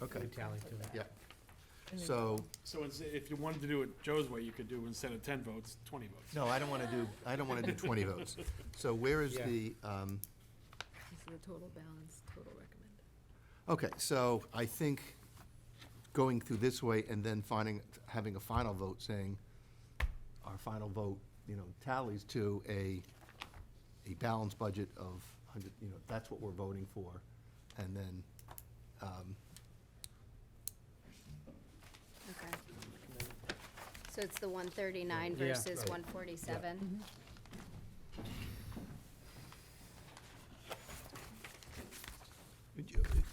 Okay. would tally to it. Yeah. So, So it's- if you wanted to do it Joe's way, you could do instead of ten votes, twenty votes. no, I don't want to do, I don't want to do 20 votes. So where is Yeah. the, um, This is the total balance, total recommended. okay, so I think going through this way and then finding, having a final vote saying our final vote, you know, tallies to a, a balanced budget of 100, you know, that's what we're voting for. And then, um, Okay. So it's the one thirty-nine Yeah. versus one forty-seven?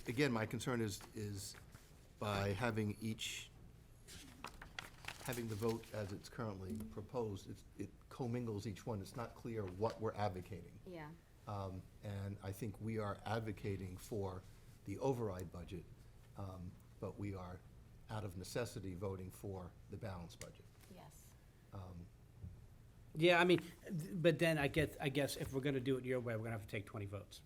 Again, my concern is, is by having each, having the vote as it's currently proposed, it's- it commingles each one. It's not clear what we're advocating. Yeah, Um, And I think we are advocating for the override budget, um, but we are, out of necessity, voting for the balanced budget. yes. Yeah, I mean, th- but then I get, I guess if we're gonna do it your way, we're gonna have to take twenty votes.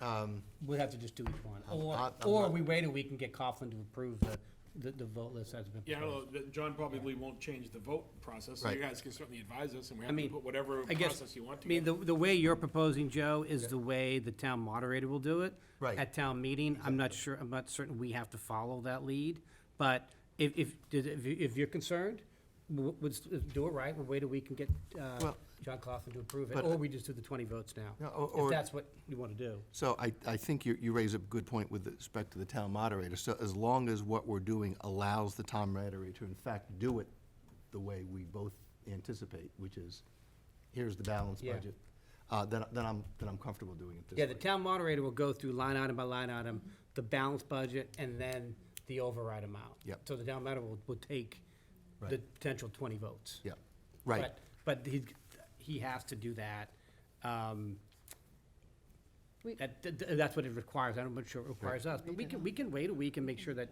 Um, We'd have to just do each one, I'm- or, I'm- I'm or not- we wait a week and get Coughlin to approve the, the, the vote list that's been Yeah, I don't proposed. know, that John probably won't change the vote process, so Right. you guys can certainly advise us, and we I have to mean, put whatever I guess, process you want I to. mean, the, the way you're proposing, Joe, Yeah. is the way the town moderator will do it. Right. At town meeting, I'm not sure, I'm not certain we have to follow that lead, but if, if, did- if, you- if you're concerned, w- would, s- uh, do it right, we'll wait a week and get, uh, Well- John Coughlin to approve it, But- uh, or we just do the twenty votes now. No, or- or- If that's what you wanna do. So I, I think you, you raise a good point with respect to the town moderator. So as long as what we're doing allows the town moderator to in fact do it the way we both anticipate, which is, here's the balanced Yeah. budget, uh, then, then I'm, then I'm comfortable doing it this way. Yeah, the town moderator will go through line item by line item, the balanced budget, and then the override amount. Yep. So the town moderator will, will take the Right. potential twenty votes. Yeah, right. But but he, he has to do that. um, We- That, th- th- that's what it requires. I'm not sure it requires us, but we can, we can wait a week and make sure that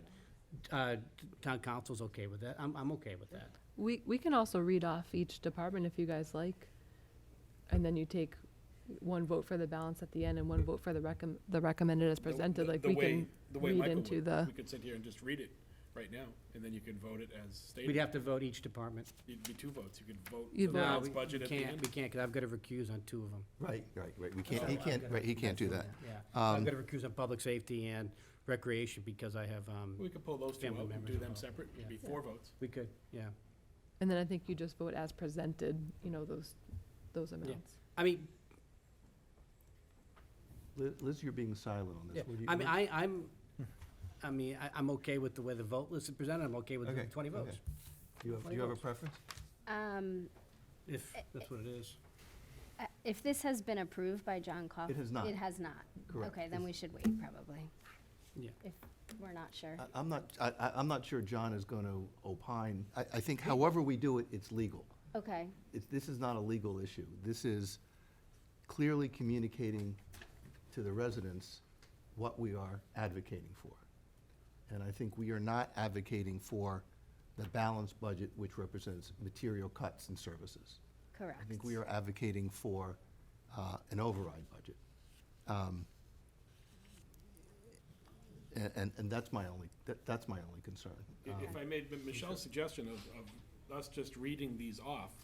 uh, town council's okay with that. I'm, I'm okay with that. We, we can also read off each department if you guys like, and then you take one vote for the balance at the end and one vote for the recom, the recommended as The- presented, the- like the we way- can the way read Michael into would. the, We could sit here and just read it right now, and then you could vote it as We'd stated. have to vote each department. It'd be two votes, you could vote the You'd vote. No, No, balanced we budget we at the can't, we end. can't, because I've got to recuse on two of them. Right, right, right. We can't, he So, can't, I've gotta- right, he can't do that. Yeah, I've Um, got to recuse on public safety and recreation because I have, um, We could pull those two Family out and members do will them vote. separate, it'd be Yeah. four votes. we could, yeah. and then I think you just vote as presented, you know, those, those amounts. I mean, Li- Liz, you're being silent on Yeah, this. What do you- I mean, what- I, I'm, I mean, I, I'm okay with the way the vote list is presented, I'm okay with the Okay, twenty votes, okay. Do you have, do you have a preference? Um, if that's what it is. uh, if this has been approved by John Coughlin? It has not. It has not? Correct. Okay, then we should wait, probably. Yeah. If we're not sure. I- I'm not, I, I- I'm not sure John is going to opine. I, I think however we do it, it's legal. Okay, it's, this is not a legal issue. This is clearly communicating to the residents what we are advocating for. And I think we are not advocating for the balanced budget, which represents material cuts in services. correct. I think we are advocating for uh, an override budget. Um, a- And, and that's my only, that- that's my only concern. I- If I made M- Michelle's suggestion of, of us just reading these off,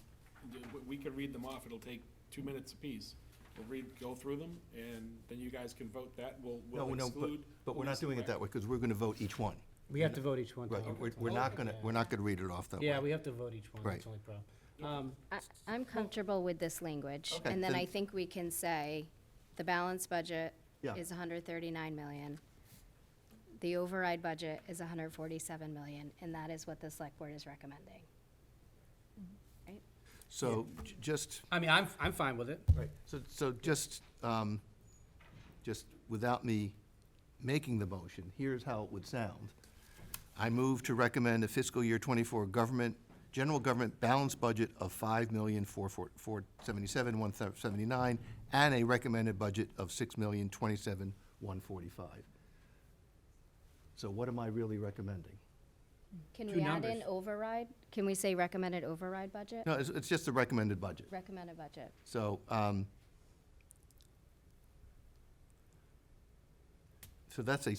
d- w- we could read them off, it'll take two minutes apiece. We'll read, go through them, and then you guys can vote that, we'll, No, we'll no, but, exclude. but we're not doing it that way, because we're going to vote each one. We have to vote each one. Right, Tom. we're, we're not gonna, we're not gonna read it off that way. Yeah, we have to vote each one, that's Right. the only problem. Um, I, I'm comfortable with this language, Okay, and then I then- think we can say, the balanced budget Yeah. is hundred thirty-nine million. The override budget is hundred forty-seven million, and that is what the select board is recommending. So, j- just, I mean, I'm, I'm fine with it. so, so just, um, just without me making the motion, here's how it would sound. I move to recommend a fiscal year twenty-four government, general government balance budget of five million, four, four, four, seventy-seven, one seventy-nine, and a recommended budget of six million, twenty-seven, one forty-five. So what am I really recommending? Can Two we add in numbers. override? Can we say recommended override budget? No, it's, it's just the recommended budget. Recommended budget. So, um, so that's a